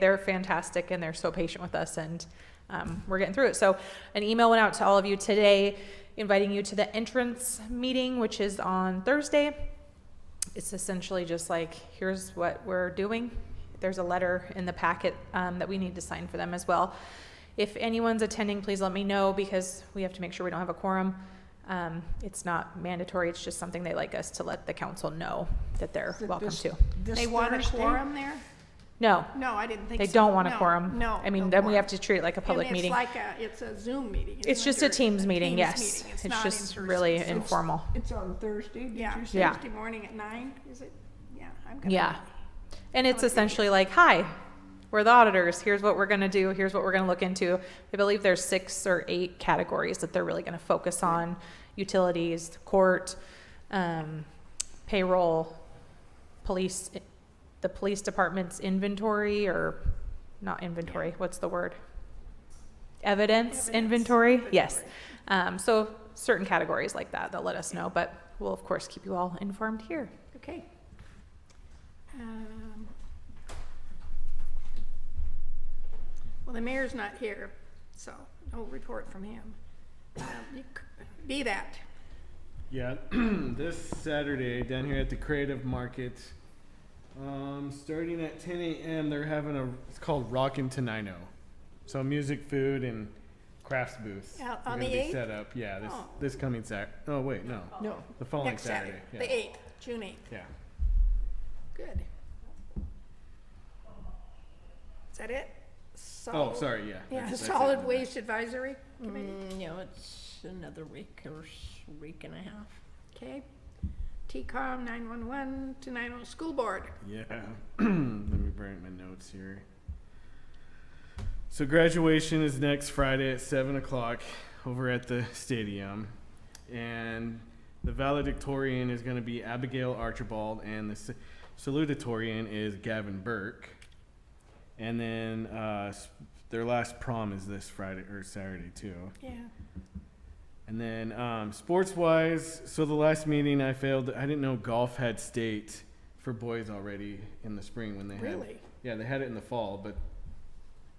they're fantastic and they're so patient with us and um, we're getting through it. So an email went out to all of you today inviting you to the entrance meeting, which is on Thursday. It's essentially just like, here's what we're doing. There's a letter in the packet um, that we need to sign for them as well. If anyone's attending, please let me know because we have to make sure we don't have a quorum. Um, It's not mandatory, it's just something they like us to let the council know that they're Th- welcome this- to. this They want a Thursday? quorum there? No, No, I didn't think so. They don't want a No, quorum. No. I mean, no then we have quorum. to treat it like a public meeting. And it's like a, it's a Zoom meeting. It's isn't just it, a or Teams meeting, Teams yes. meeting. It's not just in-person, really so- informal. It's on Thursday, did Yeah, you say? Yeah. Thursday morning at nine, is it? Yeah, I'm gonna. Yeah. And it's would think essentially like, hi, we're the auditors. Here's what we're going to do. Here's what we're going to look into. I believe there's six or eight categories that they're really going to focus on utilities, court, um, payroll, police, eh, the police department's inventory or not inventory, what's the word? Evidence, Evidence, inventory? Yes. inventory. Um, so certain categories like that, they'll let us know, but we'll of course keep you all informed here. Okay. Um, Well, the mayor's not here, so no report from him. Um, you c- Be that, Yeah, this Saturday down here at the Creative Market, um, starting at 10 a.m. They're having a it's called Rockin' Tenino, so music, food, and crafts booths. Out are on gonna the be 8th? set up. Yeah, this Oh. this coming Sat. Oh wait, no, No, the following next Saturday, Oh, Yeah. the eighth, June eighth. yeah. Good. Is that it? Oh, Solid- sorry. Yeah. Yeah, that's- that's it. Solid Waste Advisory Committee, Mm, no, it's another week or s- week and a half. okay. TCOM, nine-one-one to nine-oh, School Board, Yeah. Let me bring up my notes here. So graduation is next Friday at seven o'clock over at the stadium, and the valedictorian is going to be Abigail Archibald, and the sa- salutatorian is Gavin Burke. And then uh, s- their last prom is this Friday or Saturday too. yeah. And then um, sports wise, so the last meeting I failed. I didn't know golf had state for boys already in the spring when they had. Really? Yeah, they had it in the fall, but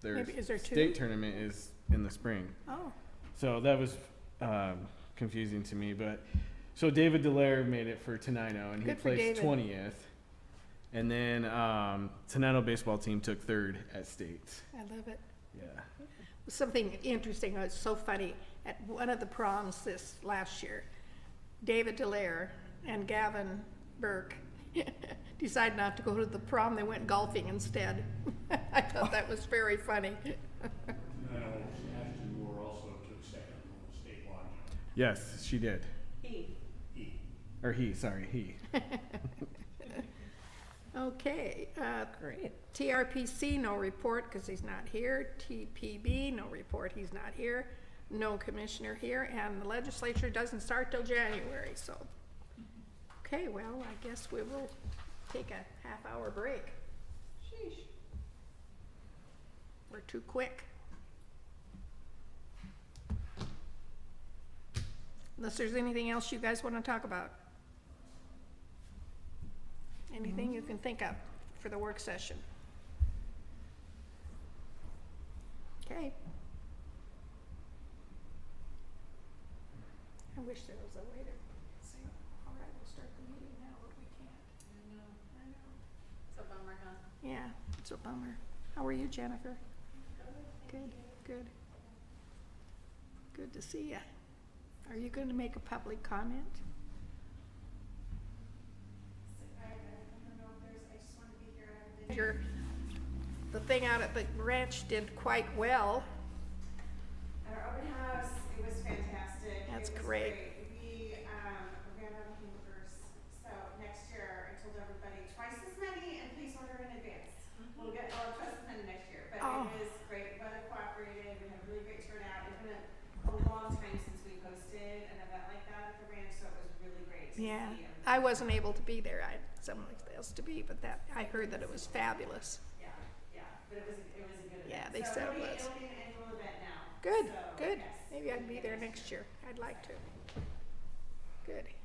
their Maybe- is there two? state tournament is in the spring. Oh, So that was um, confusing to me. But so David Delaire made it for Tenino, and he Good for placed David. twentieth. And then um, Tenino baseball team took third at state. I love it. Yeah. Something interesting, it's so funny, at one of the proms this last year, David Delaire and Gavin Burke decided not to go to the prom, they went golfing instead. I thought that was very funny. No, Ashton Uh, Moore also took second on the statewide. Yes, she did. He. Or he. Sorry, he. Okay, uh, Great. TRPC, no report because he's not here. TPB, no report, he's not here. No commissioner here, and the legislature doesn't start till January, so. Okay, well, I guess we will take a half-hour break. Sheesh. We're too quick. Unless there's anything else you guys want to talk about. Anything you can think of for the work session? Okay. I wish there was a way to say, all right, we'll start the meeting now, but we can't. I know. I know. Yeah, it's a bummer. How are you, Jennifer? Good, good. Good to see ya. Are you gonna make a public comment? Your, the thing out at the ranch did quite well. At our open house, it was fantastic. That's It was great. We, um, we're gonna have hamburgers, so next year, I told everybody twice as many and please order in advance. We'll get, well, twice as many next year, but it Oh. was great, weather cooperated, we had a really great turnout. It's been a, a long time since we hosted an event like that at the ranch, so it was really great to see. Yeah, everybody. I wasn't able to be there. I had someone else to be, but that, I heard that it was fabulous. Yeah, yeah, but it was, it was a good event. Yeah, they said it So it'll be, was. it'll be an annual event now. Good, so good. yes, Maybe we'll I can be get there next next year. I'd like to. Good.